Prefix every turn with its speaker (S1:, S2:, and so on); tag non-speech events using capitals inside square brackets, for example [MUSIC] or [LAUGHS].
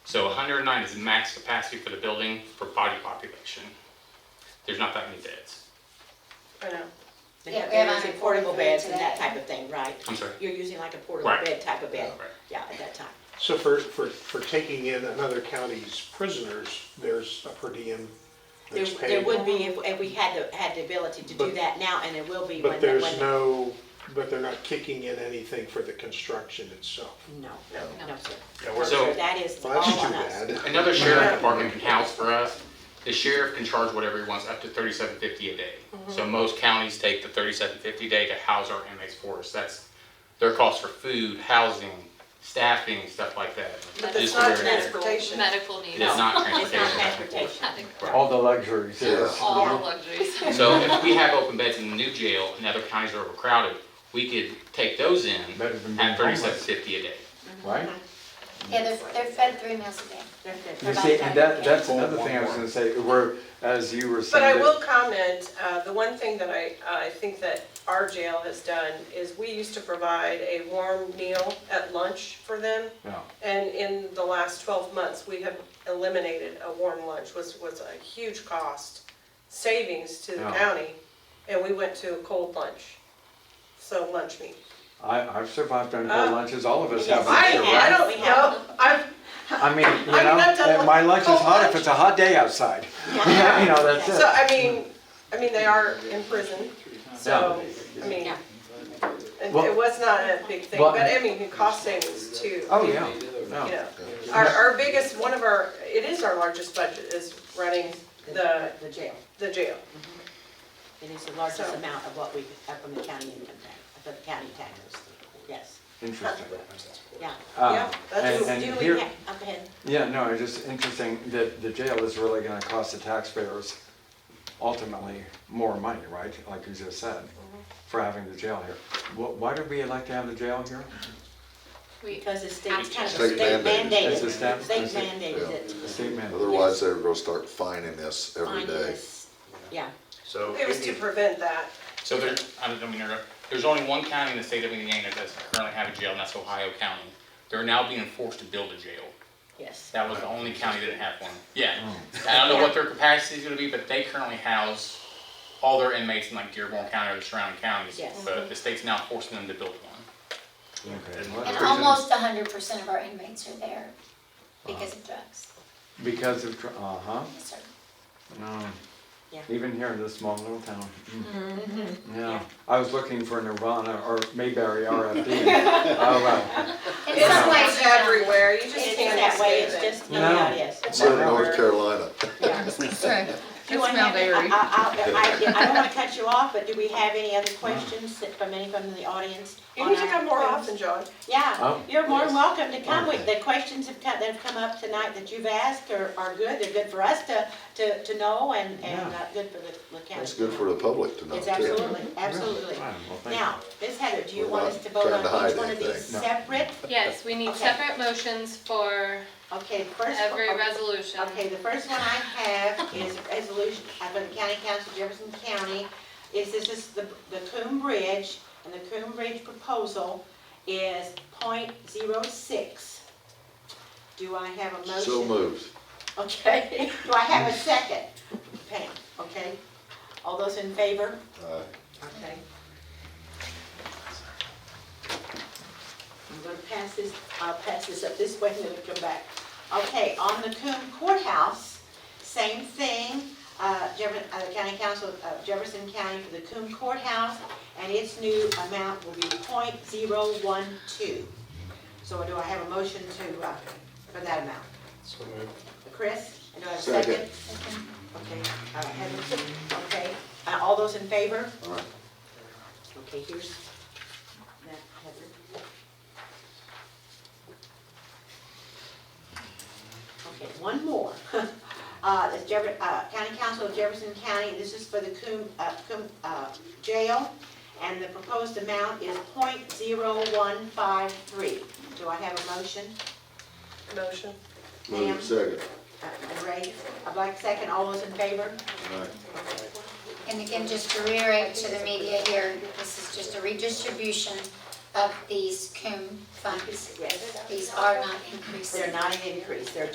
S1: So 109 is max capacity for the building for body population. There's not that many beds.
S2: I know.
S3: Yeah, we
S4: You're
S3: have
S4: using
S3: only
S4: portable
S3: 43
S4: beds and that
S3: today.
S4: type of thing, right?
S1: I'm sorry.
S4: You're using like a portable
S1: Right.
S4: bed type of bed,
S1: Right.
S4: yeah, at that time.
S5: So for, for, for taking in another county's prisoners, there's a per diem
S4: There,
S5: that's
S4: there
S5: paid.
S4: would be if, if we had the, had the ability to do
S5: But-
S4: that now, and it will be when,
S5: But
S4: the- when.
S5: there's no, but they're not kicking in anything for the construction itself.
S4: No,
S3: No.
S4: no, sir.
S6: Yeah, we're-
S1: So-
S4: That is all
S5: Well, that's
S4: on
S5: too
S4: us.
S5: bad.
S1: Another sheriff department can house for us. The sheriff can charge whatever he wants, up to 3750 a day.
S2: Mm-hmm.
S1: So most counties take the 3750 a day to house our inmates for us. That's their cost for food, housing, staffing, stuff like that. Just
S2: But that's not
S1: for their-
S2: transportation.
S3: Medical
S1: It
S3: needs.
S1: is not
S4: It's not
S1: transportation.
S4: transportation.
S3: Not the-
S1: Right.
S7: All the luxuries, yes.
S3: All the luxuries.
S1: So if we have open beds in the new jail and other counties are overcrowded, we could take those in
S7: Better than being
S1: at
S7: homeless.
S1: thirty-seven fifty a day.
S7: right?
S8: Yeah, they're, they're fed three meals a day.
S4: They're- they're
S7: You see,
S4: provided
S7: and
S4: by the
S7: that,
S4: county.
S7: that's another thing I was gonna say, where, as you were
S2: But
S7: saying.
S2: I
S7: that-
S2: will comment, uh, the one thing that I, I think that our jail has done is we used to provide a warm meal at lunch for them.
S7: Yeah.
S2: And in the last twelve months, we have eliminated a warm lunch, was, was a huge cost savings to the
S7: Yeah.
S2: county. And we went to a cold lunch, so lunch meat.
S7: I, I've survived on cold
S2: Uh,
S7: lunches, all of us
S4: yes,
S7: have.
S4: I
S7: I'm sure,
S4: have.
S7: right?
S4: we
S2: I've,
S7: I mean, you
S2: I mean, I've done
S7: know, my lunch is
S2: cold
S7: hot
S2: lunch.
S7: if it's a hot day outside. [LAUGHS] You know, that's
S2: so,
S7: it.
S2: I mean, I mean, they are in prison, so, I
S3: [LAUGHS]
S2: mean,
S3: Yeah.
S2: it
S7: Well-
S2: it was not a big thing,
S7: Well-
S2: but I mean, the cost savings too.
S7: Oh, yeah, no.
S2: You know, our, our biggest, one of our, it is our largest budget is running the,
S4: The jail.
S2: the jail.
S4: It is the largest
S2: So-
S4: amount of what we have from the county income tax, of the county taxes, yes,
S7: Interesting.
S4: yeah.
S7: Uh,
S2: Yeah, that's-
S7: and- and
S4: Do we
S7: here-
S4: have, I'm ahead.
S7: Yeah, no, it's just interesting that the jail is really gonna cost the taxpayers ultimately more money, right? Like you just said,
S4: Mm-hmm.
S7: for having the jail here. Wh- Why did we elect to have the jail here?
S3: We,
S4: because it's state, it's kind of
S6: State
S4: state mandated.
S6: mandated.
S7: It's a stat-
S4: State
S7: it's a-
S4: mandated
S6: yeah.
S4: it.
S7: The state mandate.
S6: Otherwise, they're gonna start finding this every
S4: Mine
S6: day.
S4: is- Yeah,
S6: So.
S2: It was to prevent that.
S1: So there, I don't mean to interrupt, there's only one county in the state of Indiana that does currently have a jail, and that's Ohio County. They're now being forced to build a jail.
S4: yes.
S1: That was the only county that didn't have one. Yeah, I don't know what their capacity is gonna be, but they currently house all their inmates in like Dearborn County or the surrounding counties.
S4: Yes.
S1: But the state's now forcing them to build one.
S7: Okay, well,
S8: And
S7: that's
S8: almost hundred percent of our inmates are there because of drugs.
S7: Because of, dr- uh-huh,
S8: Yes, sir.
S7: no.
S4: Yeah.
S7: Even here in this small little town. mm. Yeah,
S4: Yeah.
S7: I was looking for Nirvana or Mayberry
S4: [LAUGHS]
S7: RFD. Oh, well.
S8: In
S2: It's
S8: some ways,
S2: always
S8: they're not.
S2: everywhere, you just
S4: It's
S2: can't
S4: that way, it's
S2: escape it.
S4: just, no, doubt it is.
S6: It's in North Carolina.
S4: Yeah.
S9: Okay,
S4: [LAUGHS] Do I
S9: That's Mount
S4: have, I,
S9: Airy.
S4: I, I- I don't wanna cut you off, but do we have any other questions that- from any from the audience?
S2: You need to
S4: on our-
S2: come more often, John.
S4: Yeah,
S7: Oh.
S4: you're more than welcome to come with, the questions have come, that have come up tonight that you've asked are, are good, they're good for us to, to, to know and, and uh, good for the, the county.
S6: That's good for the public to know
S4: It's
S6: too.
S4: absolutely, absolutely.
S7: Fine, well, thank you.
S4: Now, Ms. Heather, do you
S6: We're
S4: want
S6: not
S4: us to vote
S6: trying to
S4: on each
S6: hide
S4: one of these
S6: anything.
S7: No.
S4: separate?
S3: yes, we need
S4: Okay.
S3: separate motions for
S4: Okay, first.
S3: every
S4: okay.
S3: resolution.
S4: Okay, the first one I have is a resolution of the county council, Jefferson County, is this is the, the Coombe Bridge, and the Coombe Bridge proposal is point zero six. Do I have a motion?
S6: So moved.
S4: Okay, [LAUGHS] do I have a second? Pam, okay? All those in favor?
S6: Aye.
S4: Okay. I'm gonna pass this, I'll pass this up this way and then we'll come back. Okay, on the Coombe Courthouse, same thing, uh, Jefferson, uh, the County Council of Jefferson County for the Coombe Courthouse, and its new amount will be point zero one two. So do I have a motion to, uh, for that amount? Chris, and do I have a second?
S6: Second.
S4: Okay, uh, Heather, okay, uh, all those in favor?
S6: All right.
S4: Okay, here's that Heather. Okay, one more. [LAUGHS] Uh, the Jefferson, uh, County Council of Jefferson County, this is for the Coom, uh, Coom, uh, jail, and the proposed amount is point zero one five three. Do I have a motion?
S2: Motion.
S6: Move second.
S4: Uh, Ray, I'd like second, all those in favor?
S6: Aye.
S8: And again, just to reiterate to the media here, this is just a redistribution of these COOM funds.
S4: Yes.
S8: These are not increases.
S4: They're not an increase, they're